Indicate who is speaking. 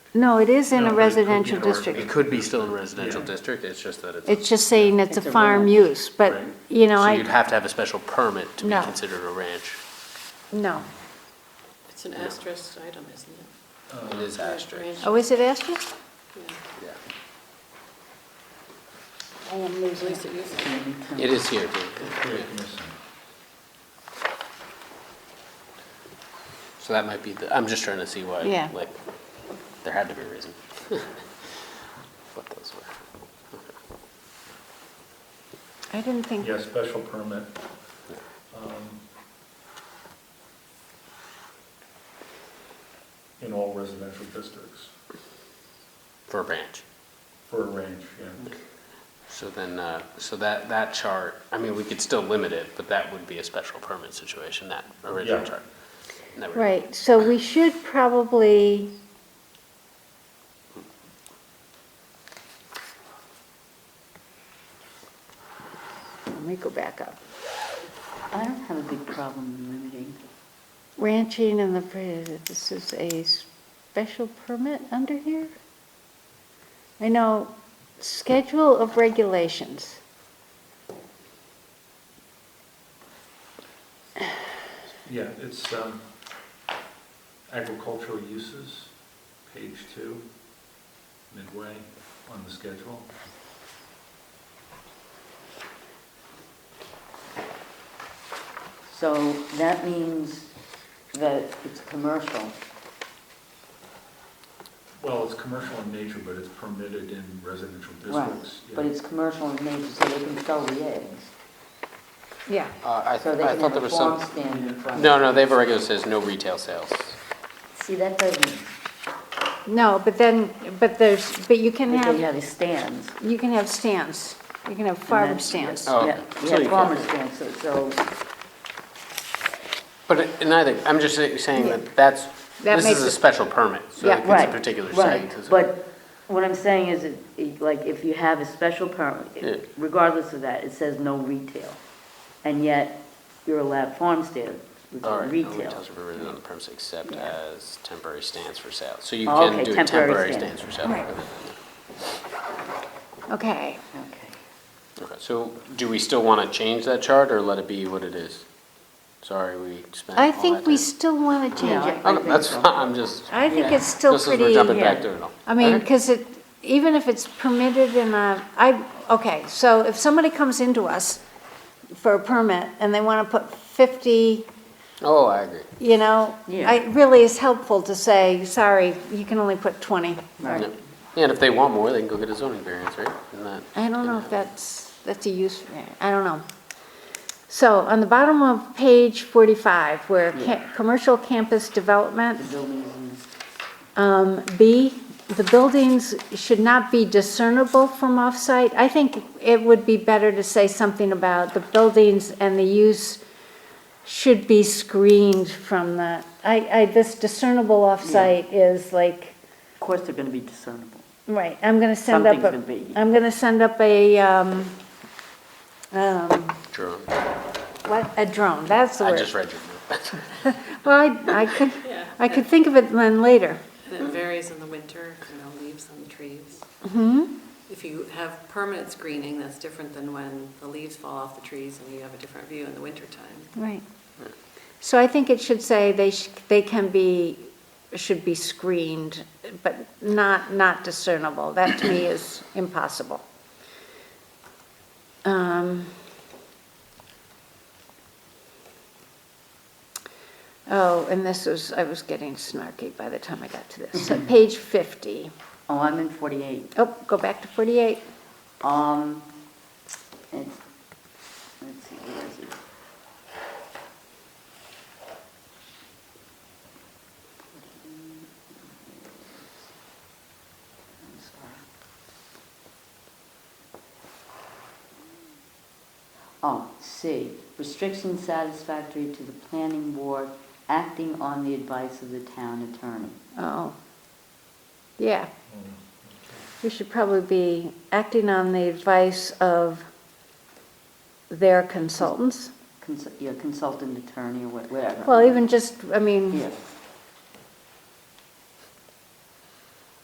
Speaker 1: No, it is in
Speaker 2: No,
Speaker 1: a
Speaker 2: it could
Speaker 1: residential
Speaker 2: be- or It
Speaker 1: district.
Speaker 2: could be still in a residential
Speaker 3: Yeah.
Speaker 2: district, it's just that it's.
Speaker 1: It's just saying it's a
Speaker 3: It's a
Speaker 1: farm
Speaker 3: ranch.
Speaker 1: use, but,
Speaker 2: Right.
Speaker 1: you know,
Speaker 2: So you'd
Speaker 1: I,
Speaker 2: have to have a special permit to be
Speaker 1: No.
Speaker 2: considered a ranch.
Speaker 1: no.
Speaker 4: It's an asterisk item, isn't it?
Speaker 2: It is asterisk,
Speaker 1: Oh, is it asterisk?
Speaker 2: yeah.
Speaker 1: I
Speaker 5: Oh.
Speaker 1: am
Speaker 4: At least it used to be.
Speaker 2: It is here, too. Yeah. So that might be, the. I'm just trying to see why,
Speaker 1: Yeah.
Speaker 2: like, there had to be a reason. What those were.
Speaker 1: I didn't think,
Speaker 3: Yeah, special permit. Um, In all residential districts,
Speaker 2: For a ranch.
Speaker 3: for a range, yeah.
Speaker 2: So then, uh, so that, that chart, I mean, we could still limit it, but that would be a special permit situation, that original
Speaker 3: Yeah.
Speaker 2: chart. That would-
Speaker 1: right, so we should probably, let me go back up.
Speaker 5: I don't have a big problem limiting.
Speaker 1: Ranching in the, pre- this is a special permit under here? I know, schedule of regulations.
Speaker 3: Yeah, it's um, agricultural uses, page two, midway on the schedule.
Speaker 5: So that means that it's commercial.
Speaker 3: Well, it's commercial in nature, but it's permitted in residential
Speaker 5: Right.
Speaker 3: districts. yeah.
Speaker 5: But it's commercial in nature, so they can sell the eggs.
Speaker 1: Yeah.
Speaker 2: Uh, I, I
Speaker 5: So they can
Speaker 2: thought
Speaker 5: have
Speaker 2: there
Speaker 5: a
Speaker 2: was
Speaker 5: farm
Speaker 2: some,
Speaker 5: stand in front of it.
Speaker 2: no, no, they have a regular that says no retail sales.
Speaker 5: See, that doesn't,
Speaker 1: No, but then, but there's, but you can
Speaker 5: because you
Speaker 1: have,
Speaker 5: have a stands. and
Speaker 1: you can have stands. You can have farm
Speaker 5: that's-
Speaker 1: stands.
Speaker 2: Oh,
Speaker 5: Yeah,
Speaker 2: okay.
Speaker 5: you
Speaker 2: So you
Speaker 5: have farmer
Speaker 2: can-
Speaker 5: stands, so, so,
Speaker 2: But in neither, I'm just say- saying that that's,
Speaker 1: That
Speaker 2: this
Speaker 1: makes
Speaker 2: is a
Speaker 1: it-
Speaker 2: special permit, so
Speaker 1: Yeah,
Speaker 2: it's
Speaker 5: right.
Speaker 2: a particular
Speaker 5: right.
Speaker 2: site. so-
Speaker 5: But what I'm saying is, it- it- like, if you have a special
Speaker 2: Yeah.
Speaker 5: permit, regardless of that, it says no retail. And yet, you're allowed farm stands, which
Speaker 2: All right,
Speaker 5: is
Speaker 2: no
Speaker 5: retail.
Speaker 2: retails are permitted on the premise except
Speaker 5: Yeah.
Speaker 2: as temporary stands for sale. So you
Speaker 5: Oh,
Speaker 2: can
Speaker 5: okay,
Speaker 2: do
Speaker 5: temporary
Speaker 2: temporary
Speaker 5: stand.
Speaker 2: stands for sale.
Speaker 1: Right. Okay.
Speaker 5: Okay.
Speaker 2: Okay, so do we still want to change that chart or let it be what it is? Sorry, we spent all
Speaker 1: I
Speaker 2: that
Speaker 1: think we
Speaker 2: time.
Speaker 1: still want to change
Speaker 5: Yeah.
Speaker 1: it.
Speaker 5: I
Speaker 2: Okay, that's,
Speaker 5: think
Speaker 2: fine,
Speaker 5: so.
Speaker 2: I'm just,
Speaker 1: I think
Speaker 5: Yeah.
Speaker 1: it's still
Speaker 2: just as
Speaker 1: pretty.
Speaker 2: we're jumping back
Speaker 5: yeah.
Speaker 2: to it all.
Speaker 1: I mean,
Speaker 2: Okay.
Speaker 1: because it, even if it's permitted in a, I, okay, so if somebody comes into us for a permit and they want to put 50,
Speaker 2: Oh, I agree.
Speaker 1: you know,
Speaker 5: Yeah.
Speaker 1: it really is helpful to say, sorry, you can only put 20.
Speaker 2: Yeah,
Speaker 5: Right.
Speaker 2: Yeah, and if they want more, they can go get a zoning variance, right? Isn't that-
Speaker 1: I don't know if that's, that's a use, I don't know. So on the bottom of page 45, where ca- commercial campus development,
Speaker 5: The buildings and
Speaker 1: Um, B, the buildings should not be discernible from off-site. I think it would be better to say something about the buildings and the use should be screened from the, I, I, this discernible off-site is like,
Speaker 5: Of course, they're gonna be discernible.
Speaker 1: right, I'm gonna send up,
Speaker 5: Something's gonna
Speaker 1: a-
Speaker 5: be-
Speaker 1: I'm gonna send up a, um, um,
Speaker 2: Drone.
Speaker 1: what, a drone, that's the
Speaker 2: I
Speaker 1: word.
Speaker 2: just read your note.
Speaker 1: Well, I, I could,
Speaker 4: Yeah.
Speaker 1: I could think of it then later.
Speaker 4: And it varies in the winter, you know, leaves on the trees. If you have permanent screening, that's different than when the leaves fall off the trees and you have a different view in the wintertime.
Speaker 1: Right. So I think it should say they, sh- they can be, should be screened, but not, not discernible. That to me is impossible. Um, Oh, and this was, I was getting snarky by the time I got to this. So Page 50.
Speaker 5: Oh, I'm in 48.
Speaker 1: Oh, go back to 48.
Speaker 5: Um, it's, let's see, where is it? I'm sorry. Oh, C, restrictions satisfactory to the planning board acting on the advice of the town attorney.
Speaker 1: Oh, yeah. We should probably be acting on the advice of their consultants.
Speaker 5: Consul- Yeah, consultant attorney or wha- whatever.
Speaker 1: Well, even just, I mean,
Speaker 5: Yeah.